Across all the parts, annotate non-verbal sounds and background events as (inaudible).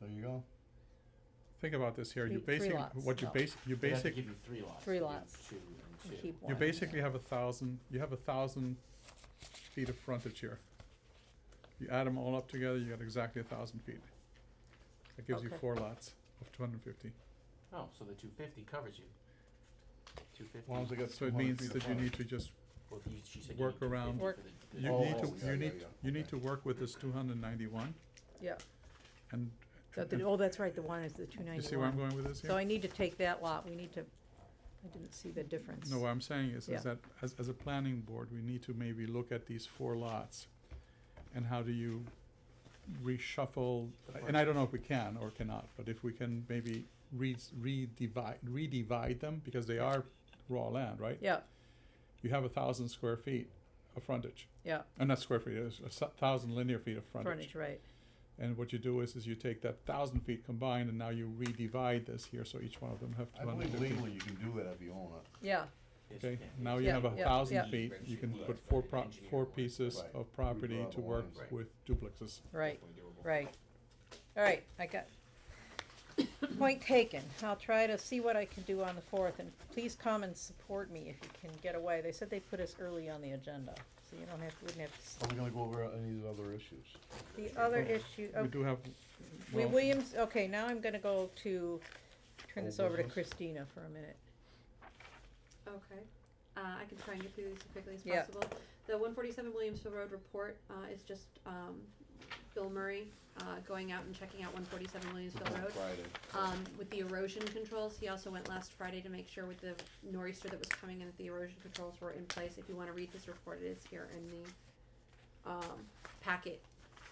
There you go. Think about this here, you're Three- three basing, lots, what you no. base, you They'd have to basic, give you three lots. Three you lots. Two You and two. keep you one. basically have a thousand, you have a thousand feet of frontage here. You add them all up together, you got exactly a thousand feet. That gives you Okay. four lots of two hundred and fifty. Oh, so the two fifty covers you. Two fifty. As long as they got So it 200 means feet that you apart. need to just, Well, you, she said work you need 250 around- for Work. the- the- you Oh, need oh, to, yeah, you yeah, need, yeah, you need okay. to work with this two hundred and ninety-one Yep. and. So the- Oh, that's right, the one is the two You see where I'm ninety-one. going with this here? So I need to take that lot, we need to, I didn't see the difference. No, uh, what I'm saying is, Yeah. is that as, as a planning board, we need to maybe look at these four lots and how do you reshuffle, The and I don't know if we can or cannot, but if we can maybe re, redivide, redivide them, because they are raw land, right? Yeah, You have a thousand square feet of frontage, yeah, uh, not square feet, it's a s- thousand linear feet of frontage. frontage, right, And what you do is, is you take that thousand feet combined and now you redivide this here, so each one of them have I two hundred believe fifty. legally you can do that if you own it. yeah, Yes, Okay, yeah, now yes. you Yeah, have a yeah, yeah. thousand feet, you Spreadsheet can work put for four an pro- engineer four work. pieces Right. of property We'd to rather work own it. with duplexes. right, Definitely doable. right. All right, I got, (coughs) point taken. I'll try to see what I can do on the fourth, and please come and support me if you can get away. They said they put us early on the agenda, so you don't have, wouldn't have to. s- Are we gonna go over any of the other issues? The other Well, issue, We oh, do have, Wait, well, Williams, okay, now I'm gonna go to, turn Old this over to business. Christina for a minute. Okay, uh, I can try and get through these as quickly as Yeah. possible. The one forty-seven Williamsville Road report, uh, is just, um, Bill Murray, uh, going out and checking out one forty-seven Williamsville Road. Friday. Um, with the erosion controls, he also went last Friday to make sure with the nor'easter that was coming in, that the erosion controls were in place. If you wanna read this report, it is here in the, um, packet.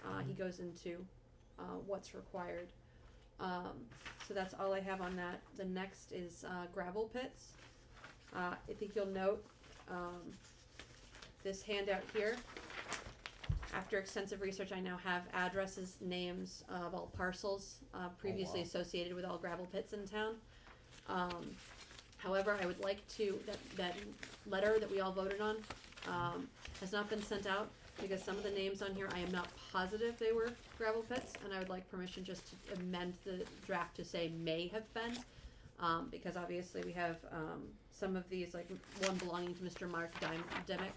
Uh, he goes into, uh, what's required. Um, so that's all I have on that. The next is, uh, gravel pits. Uh, I think you'll note, um, this handout here. After extensive research, I now have addresses, names of all parcels, uh, previously wow. associated with all gravel pits in town. Um, however, I would like to, that, that letter that we all voted on, um, has not been sent out because some of the names on here, I am not positive they were gravel pits, and I would like permission just to amend the draft to say may have been. Um, because obviously we have, um, some of these, like one belonging to Mr. Mark Dime- Demick.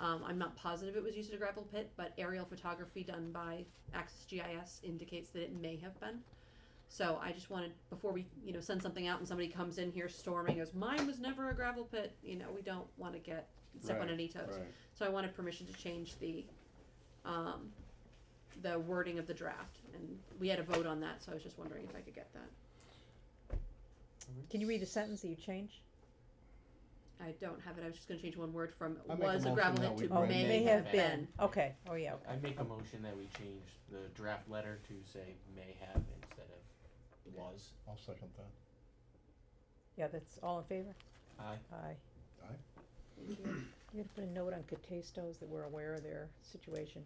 Um, I'm not positive it was used in a gravel pit, but aerial photography done by Axis GIS indicates that it may have been. So I just wanted, before we, you know, send something out and somebody comes in here storming, goes, mine was never a gravel pit, you know, we don't wanna get, step on Right, any toes. Right. So I wanted permission to change the, um, the wording of the draft, and we had a vote on that, so I was just wondering if I could get that. Can you read the sentence that you changed? I don't have it, I was just gonna change one word from I make a was a motion gravel that pit we to Oh, Right. may may have been, been. okay, oh, yeah, I okay. make a motion that we change the draft letter to say may have instead of was. I'll second that. Yeah, that's all in favor? Aye. Aye. Aye. Thank you. You gotta put a note on Catestos that we're aware of their situation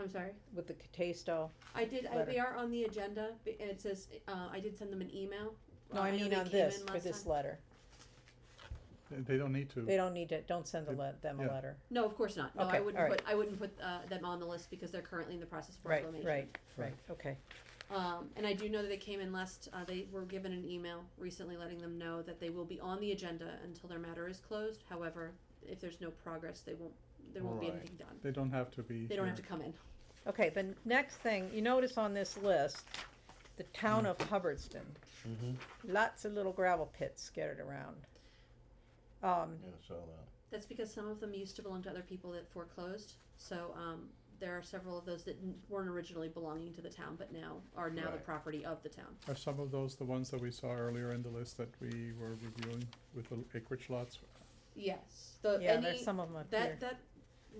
I'm sorry. with the Catesto. I did. I, they Letter. are on the agenda, but and it says uh, I did send them an email. No, Uh, I know mean they on came this, in for last this time. letter. they- they don't need to. They don't need to, don't send the le- them a Yeah. letter. No, of course not. No, Okay, I wouldn't all right. put. I wouldn't put uh, them on the list because they're currently in the process of Right, proclamation. right, right, okay. Um, and I do know that they came in last. Uh, they were given an email recently letting them know that they will be on the agenda until their matter is closed. However, if there's no progress, they won't. There won't be Right. anything done. They don't have to be They don't have to here. come in. Okay, the n- next thing, you notice on this list, the town of Hubbardston, Mm-hmm. lots of little gravel pits scattered around. Um, Yeah, uh, I saw that. That's because some of them used to belong to other people that foreclosed. So um, there are several of those that n- weren't originally belonging to the town, but now are now the Right. property of the town. Are some of those the ones that we saw earlier in the list that we were reviewing with the acreage lots? Yes, the yeah, any there's some of them up here. that that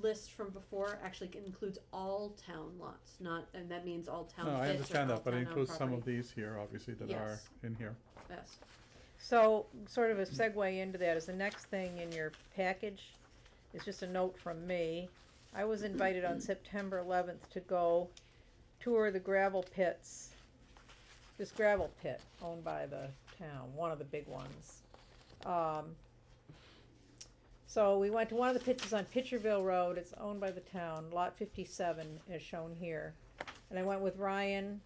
list from before actually includes all town lots, not and that means all town. No, I pits or understand all that, but it town-owned includes some of property. these here, obviously, that are Yes. in here. Yes. So, sort of a segue into that is the next thing in your package is just a note from me. I was invited on September eleventh to go tour the gravel pits. This gravel pit owned by the town, one of the big ones. Um, so we went to one of the pits, it's on Pitcherville Road, it's owned by the town, lot fifty-seven is shown here. And I went with Ryan,